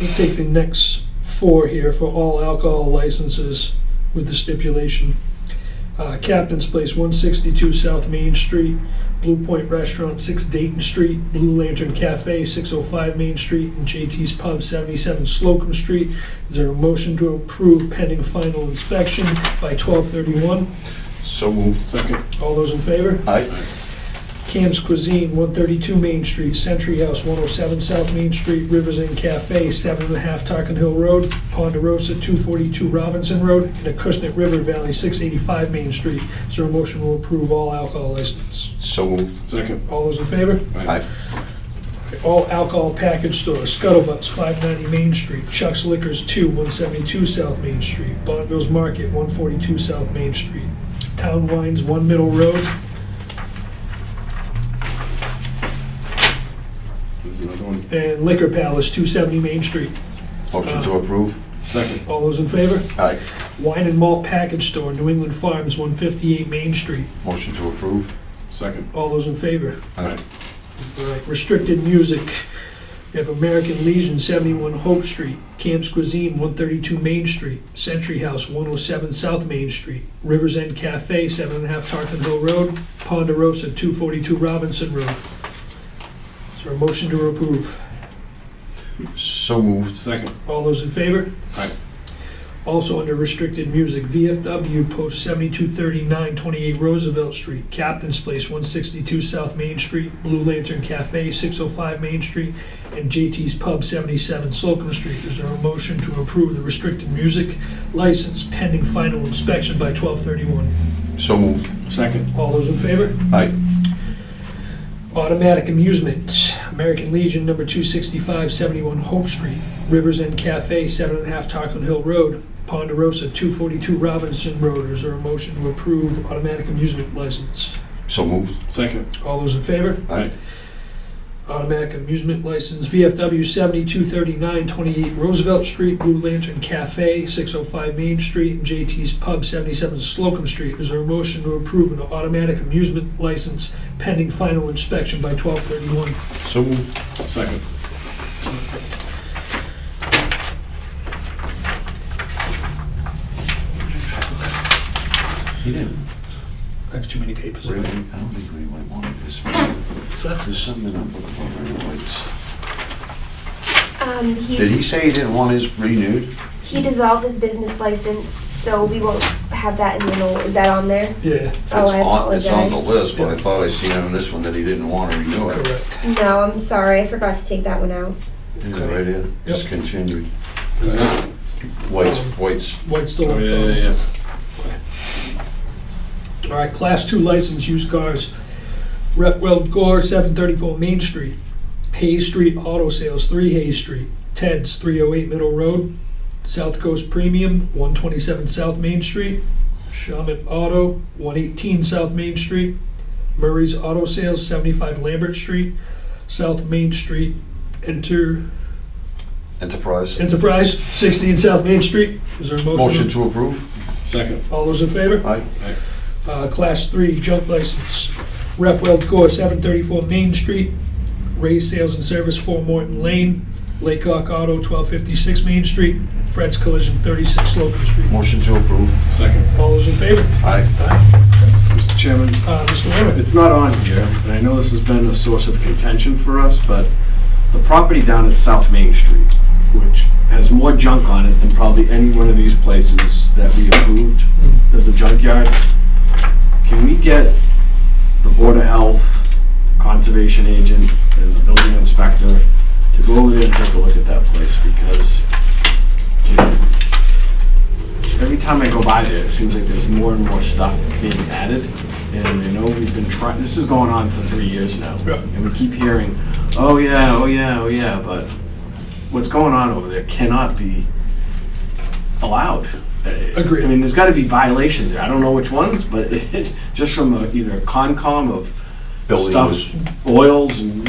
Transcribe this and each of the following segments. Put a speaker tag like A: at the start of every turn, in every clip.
A: We'll take the next four here for all alcohol licenses with the stipulation. Uh, Captain's Place, 162 South Main Street, Blue Point Restaurant, 6 Dayton Street, Blue Lantern Cafe, 605 Main Street, and JT's Pub, 77 Slocum Street. Is there a motion to approve pending final inspection by 12:31?
B: So moved.
C: Second.
A: All those in favor?
B: Aye.
A: Cam's Cuisine, 132 Main Street, Century House, 107 South Main Street, Rivers Inn Cafe, 7.5 Tarkin Hill Road, Ponderosa, 242 Robinson Road, and Acushnet River Valley, 685 Main Street. Is there a motion to approve all alcohol licenses?
B: So moved.
C: Second.
A: All those in favor?
B: Aye.
A: All alcohol package stores, Scuttlebutt's, 590 Main Street, Chuck's Liquors, 2, 172 South Main Street, Bonneville's Market, 142 South Main Street, Town Wines, 1 Middle Road,
C: There's another one.
A: and Liquor Palace, 270 Main Street.
B: Motion to approve?
C: Second.
A: All those in favor?
B: Aye.
A: Wine and Malt Package Store, New England Farms, 158 Main Street.
B: Motion to approve?
C: Second.
A: All those in favor?
B: Aye.
A: All right, Restricted Music, we have American Legion, 71 Hope Street, Camp's Cuisine, 132 Main Street, Century House, 107 South Main Street, Rivers End Cafe, 7.5 Tarpon Hill Road, Ponderosa, 242 Robinson Road. Is there a motion to approve?
B: So moved.
C: Second.
A: All those in favor?
C: Aye.
A: Also under restricted music, VFW Post 7239, 28 Roosevelt Street, Captain's Place, 162 South Main Street, Blue Lantern Cafe, 605 Main Street, and JT's Pub, 77 Slocum Street. Is there a motion to approve the restricted music license pending final inspection by 1231?
B: So moved.
C: Second.
A: All those in favor?
B: Aye.
A: Automatic Amusement, American Legion, number 265, 71 Hope Street, Rivers End Cafe, 7.5 Tarpon Hill Road, Ponderosa, 242 Robinson Road. Is there a motion to approve automatic amusement license?
B: So moved.
C: Second.
A: All those in favor?
B: Aye.
A: Automatic amusement license, VFW 7239, 28 Roosevelt Street, Blue Lantern Cafe, 605 Main Street, and JT's Pub, 77 Slocum Street. Is there a motion to approve an automatic amusement license pending final inspection by 1231?
B: So moved.
C: Second.
B: He didn't.
A: I have too many papers.
B: Ray, I don't think Ray might want this. There's
A: So that's-
B: something up with the Ray White's.
D: Um,
B: Did
D: he,
B: he say he didn't want his renewed?
D: he dissolved his business license, so we won't have that in the middle. Is that on there?
A: Yeah,
D: Oh,
B: It's
D: I
B: on- It's on the
D: apologize.
B: list, but I thought I seen on this one that he didn't want to renew it.
A: correct.
D: No, I'm sorry. I forgot to take that one out.
B: Yeah, right here, discontinued.
C: There's another-
B: White's, White's,
A: White's still
C: Oh,
A: on
C: yeah, yeah,
A: top.
C: yeah.
A: All right, Class 2 licensed used cars. Repwell Gore, 734 Main Street. Hayes Street Auto Sales, 3 Hayes Street. Ted's, 308 Middle Road. South Coast Premium, 127 South Main Street. Shaman Auto, 118 South Main Street. Murray's Auto Sales, 75 Lambert Street. South Main Street, Enter
B: Enterprise.
A: Enterprise, 16 South Main Street. Is there a
B: Motion to approve?
C: Second.
A: All those in favor?
B: Aye.
A: Uh, Class 3 junk license, Repwell Gore, 734 Main Street, Ray's Sales and Service, 4 Morton Lane, Laycock Auto, 1256 Main Street, and Fred's Collision, 36 Slocum Street.
B: Motion to approve?
C: Second.
A: All those in favor?
B: Aye.
C: Mr. Chairman,
A: Uh, Mr. Warren?
C: it's not on here, and I know this has been a source of contention for us, but the property down at South Main Street, which has more junk on it than probably any one of these places that we approved as a junkyard, can we get the Board of Health, Conservation Agent, and the Building Inspector to go over there and take a look at that place, because every time I go by there, it seems like there's more and more stuff being added, and I know we've been trying, this is going on for three years now.
A: Yeah.
C: And we keep hearing, oh yeah, oh yeah, oh yeah, but what's going on over there cannot be allowed.
A: Agreed.
C: I mean, there's gotta be violations there, I don't know which ones, but it, just from a- either Concom of
B: Building was,
C: stuff, oils and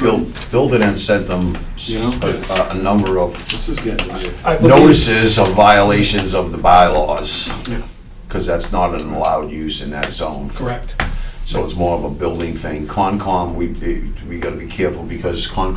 B: build, building and sent them s-
C: You know?
B: a, a number of
C: This is getting weird.
A: I believe-
B: notices of violations of the bylaws.
C: Yeah.
B: Cause that's not an allowed use in that zone.
A: Correct.
B: So it's more of a building thing. Concom, we, we gotta be careful because Concom